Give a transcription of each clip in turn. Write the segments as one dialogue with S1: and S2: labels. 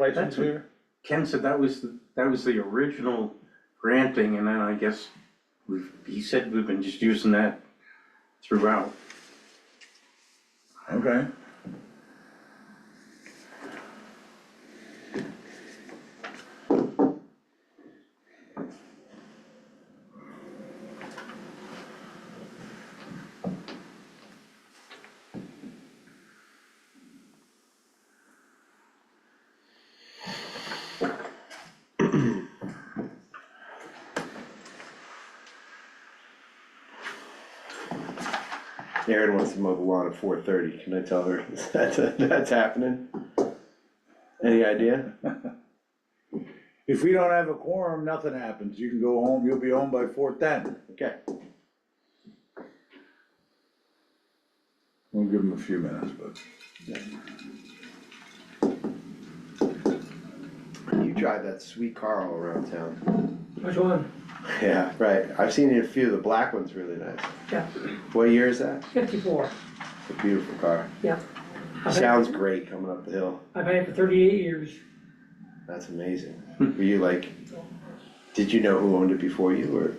S1: license here?
S2: Ken said that was, the- that was the original granting, and then I guess we've, he said we've been just using that throughout.
S1: Okay.
S3: Erin wants to mow the lawn at four thirty, can I tell her that's, that's happening? Any idea?
S1: If we don't have a quorum, nothing happens. You can go home, you'll be home by four ten.
S3: Okay,
S1: We'll give them a few minutes, but.
S3: you drive that sweet car all around town.
S4: Which one?
S3: Yeah, right, I've seen a few, the black one's really nice.
S4: Yeah.
S3: What year is that?
S4: Fifty-four,
S3: It's a beautiful car,
S4: yeah. I've had-
S3: sounds great coming up the hill,
S4: I've had it for thirty-eight years.
S3: that's amazing. Were you like, did you know who owned it before you, or?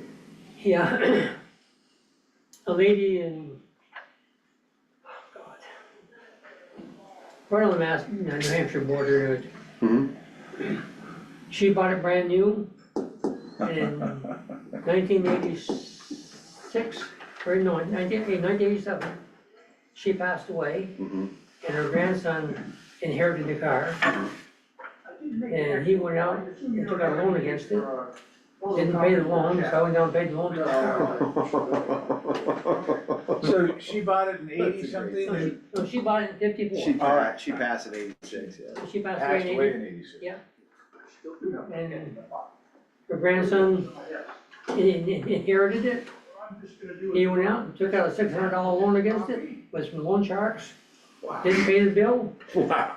S4: Yeah. A lady in, oh God. Right on the Mass, New Hampshire border, it-
S3: Mhm.
S4: she bought it brand new in nineteen eighty-six, or no, nineteen, nineteen eighty-seven. She passed away.
S3: Mhm.
S4: and her grandson inherited the car. And he went out and took out a loan against it,
S1: Oh,
S4: didn't pay the loan, so I went down and paid the loan.
S3: Oh,
S1: So she bought it in
S3: eighty something
S4: So she, so she bought it in
S3: She
S4: fifty-four,
S3: passed, she passed at eighty-six, yeah.
S4: she passed away in eighty,
S1: in eighty-six.
S4: and her grandson in- in- inherited it. He went out and took out a six hundred dollar loan against it, was from loan sharks, didn't pay the bill,
S3: Wow.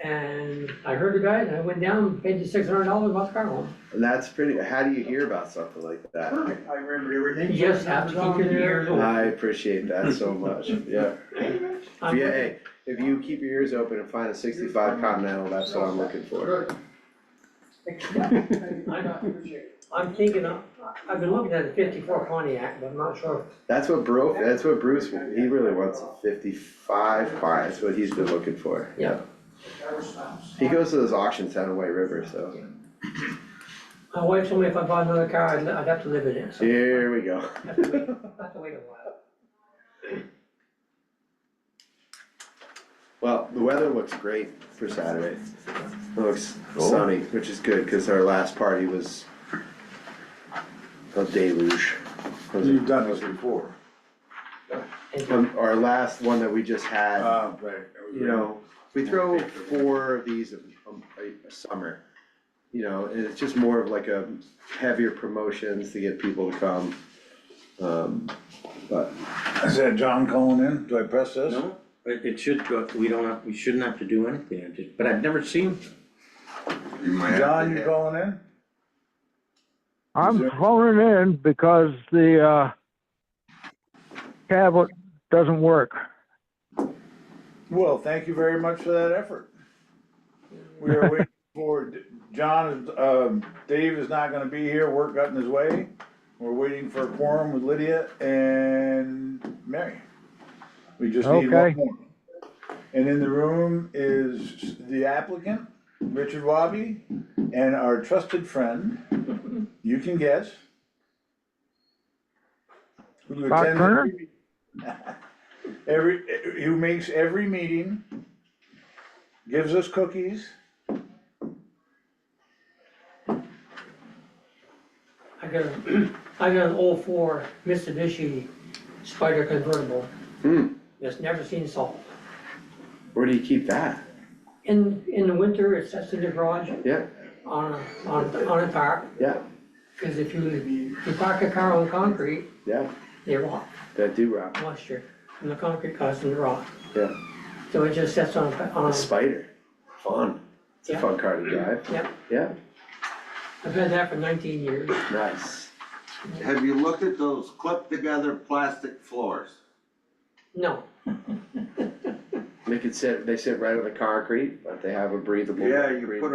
S4: and I heard the guy, and I went down, and paid the six hundred dollars, bought the car home.
S3: And that's pretty, how do you hear about something like that?
S5: Perfect, I remembered everything.
S4: You just have to keep your ears open.
S3: I appreciate that so much, yeah. If
S4: I'm
S3: you, hey, if you keep your ears open and find a sixty-five Continental, that's what I'm looking for.
S5: Good.
S4: I'm thinking, of- I've been looking at a fifty-four Pontiac, but I'm not sure.
S3: That's what broke, that's what Bruce, he really wants a fifty-five car, that's what he's been looking for, yeah. He goes to those auctions down in White River, so,
S4: My wife told me if I bought another car, I'd, li- I'd have to live in it, so I
S3: here we go.
S4: have to wait, I have to wait a while.
S3: Well, the weather looks great for Saturday. It looks sunny, which is good, cause our last party was a deluge. It was a-
S1: You've done this before.
S4: And
S3: Um, our last one that we just had,
S1: Uh, right.
S3: you know, we throw four of these a, a- a summer. You know, and it's just more of like a heavier promotions to get people to come. Um, but
S1: Is that John calling in? Do I press this?
S2: No, it, it should go, we don't have, we shouldn't have to do anything, I just- but I've never seen,
S5: You might have
S1: John,
S5: to
S1: you
S5: hit-
S1: calling in? Is
S6: I'm
S1: there-
S6: calling in because the, uh, tablet doesn't work.
S1: Well, thank you very much for that effort. We are waiting for, John, is- um, Dave is not gonna be here, work got in his way. We're waiting for a quorum with Lydia and Mary. We just need one
S6: Okay.
S1: more. And in the room is the applicant, Richard Wabi, and our trusted friend, you can guess. who
S6: Bob
S1: attends
S6: Turner?
S1: every- Every, who makes every meeting, gives us cookies.
S4: I got, a- I got an old four Mitsubishi Spider convertible.
S3: Hmm.
S4: That's never seen salt.
S3: where do you keep that?
S4: In, in the winter, it sits in the garage
S3: Yeah,
S4: on a, on, a- on a tarp,
S3: yeah,
S4: cause if you, you park a car on concrete,
S3: yeah,
S4: they rot,
S3: that do rock,
S4: moisture, and the concrete causes them to rot.
S3: yeah.
S4: So it just sits on, a- on,
S3: A
S4: a-
S3: spider, fun. It's a
S4: Yeah.
S3: fun car to drive.
S4: Yeah.
S3: Yeah,
S4: I've had that for nineteen years.
S3: nice.
S5: Have you looked at those clipped together plastic floors?
S4: No.
S3: They could sit, they sit right on the concrete, but they have a breathable.
S5: Yeah, you
S3: breathable-
S5: put a